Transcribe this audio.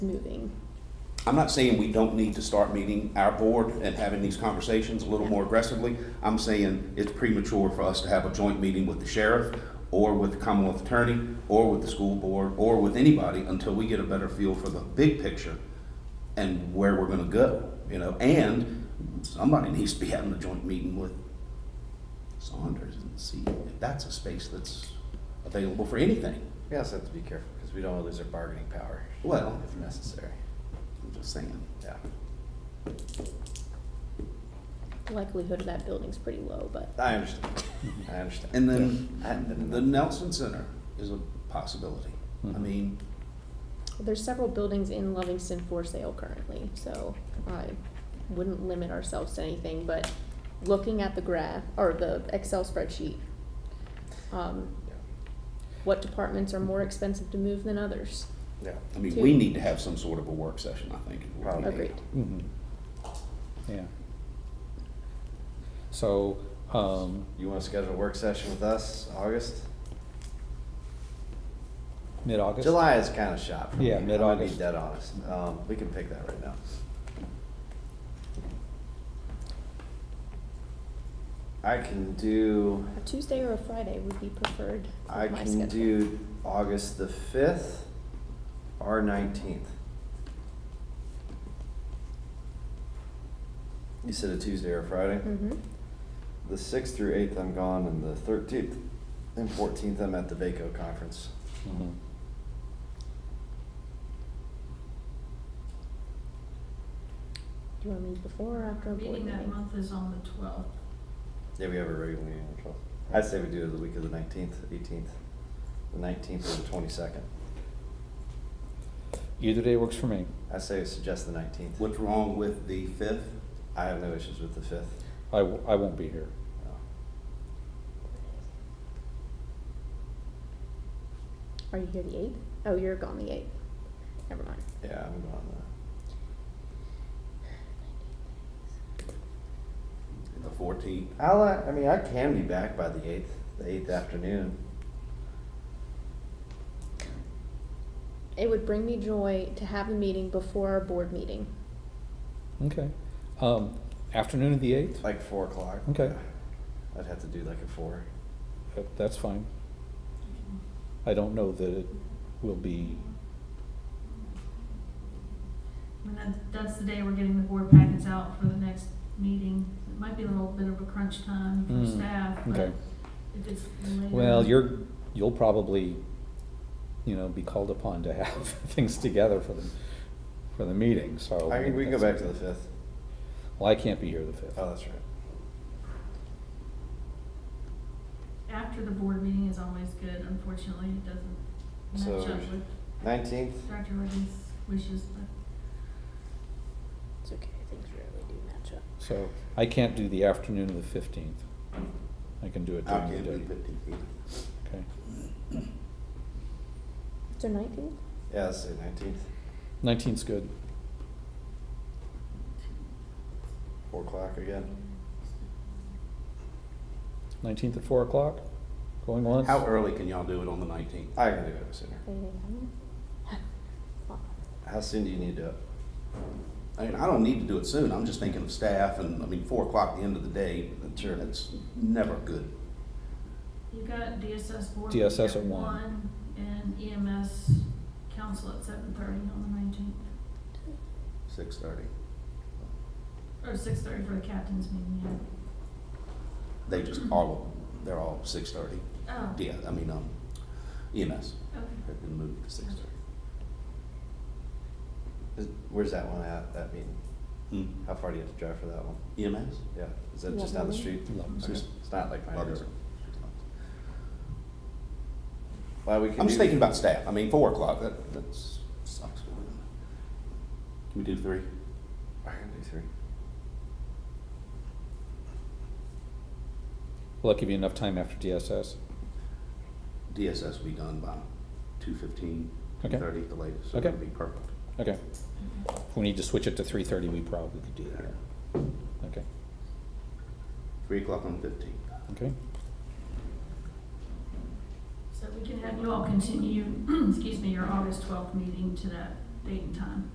moving. I'm not saying we don't need to start meeting our board and having these conversations a little more aggressively. I'm saying it's premature for us to have a joint meeting with the sheriff, or with the Commonwealth Attorney, or with the school board, or with anybody until we get a better feel for the big picture and where we're gonna go, you know? And somebody needs to be having a joint meeting with Saunders and see if that's a space that's available for anything. We also have to be careful because we don't want to lose our bargaining power. Well- If necessary, I'm just saying. yeah. The likelihood of that building's pretty low, but I understand, I understand. And then I haven't been in the that. Nelson Center is a possibility. I mean, there's several buildings in Livingston for sale currently, so I wouldn't limit ourselves to anything, but looking at the graph, or the Excel spreadsheet, um, Yeah. what departments are more expensive to move than others? Yeah, I mean, Two. we need to have some sort of a work session, I think. Probably. Agreed. Mhm. Yeah. So, um, you want to schedule a work session with us, August? mid-August? July is kind of shot for me. Yeah, I'm gonna mid-August. be dead honest, um, we can pick that right now. I can do, A Tuesday or a Friday would be preferred I for my schedule. can do August the fifth or nineteenth. You said a Tuesday or a Friday? Mhm. The sixth through eighth, I'm gone, and the thirteenth and fourteenth, I'm at the VACO conference. Mhm. Do you want me before or after a board Meeting meeting? that month is on the twelfth. Yeah, we have a regular meeting on the twelfth. I'd say we do it the week of the nineteenth, eighteenth, the nineteenth or the twenty-second. Either day works for me. I say we suggest the nineteenth. What's wrong with the fifth? I have no issues with the fifth. I, w- I won't be here. Are you here the eighth? Oh, you're gone the eighth. Never mind. Yeah, I'm gone. uh, The fourteenth? uh, I'll, uh, I mean, I can be back by the eighth, the eighth afternoon. It would bring me joy to have a meeting before our board meeting. Okay. Um, afternoon of the eighth? Like four o'clock. Okay. I'd have to do like a four. Uh, That's fine. I don't know that it will be, And that, that's the day we're getting the board packets out for the next meeting. It might be a little bit of a crunch time for Mm, staff, but okay. if it's later. Well, you're, you'll probably, you know, be called upon to have things together for the, for the meeting, so. Oh, I mean, we can go back to the fifth. Well, I can't be here the fifth. Oh, that's right. After the board meeting is always good, unfortunately, it doesn't match So- up with Nineteenth, Dr. Reagan's wishes, but It's okay, things rarely do match up. So I can't do the afternoon of the fifteenth. I can do it I during the can't day. do fifteenth either. Okay. So nineteenth? yeah, let's say nineteenth, Nineteenth's good. four o'clock again. Nineteenth at four o'clock, going once. How early can y'all do it on the nineteenth? I can do it sooner. Well, How soon do you need to do it? I mean, I don't need to do it soon, I'm just thinking of staff, and, I mean, four o'clock, the end of the day, Sure. that's never good. you got DSS board meeting DSS at at one one. and EMS council at seven thirty on the nineteenth, Six thirty. or six thirty for the captain's meeting, yeah. They just, all, they're all six thirty. Oh, okay. Yeah, I mean, um, EMS, they've been moved to six thirty. Is- Where's that one at, that meeting? Hmm. How far do you have to drive for that one? EMS? Yeah, is that just down the street? Lumps. Okay. It's not like my Others. Well, we can I'm just do- thinking about staff, I mean, four o'clock, that, that's, sucks. Can we do three? I can do three. Will that give you enough time after DSS? DSS will be done by two fifteen, Okay. two thirty at the latest, so Okay. it'll be perfect. Okay. If we need to switch it to three thirty, we probably could do that. Okay, Three o'clock on fifteen. okay. So we can have you all continue, excuse me, your August twelfth meeting to that date and time.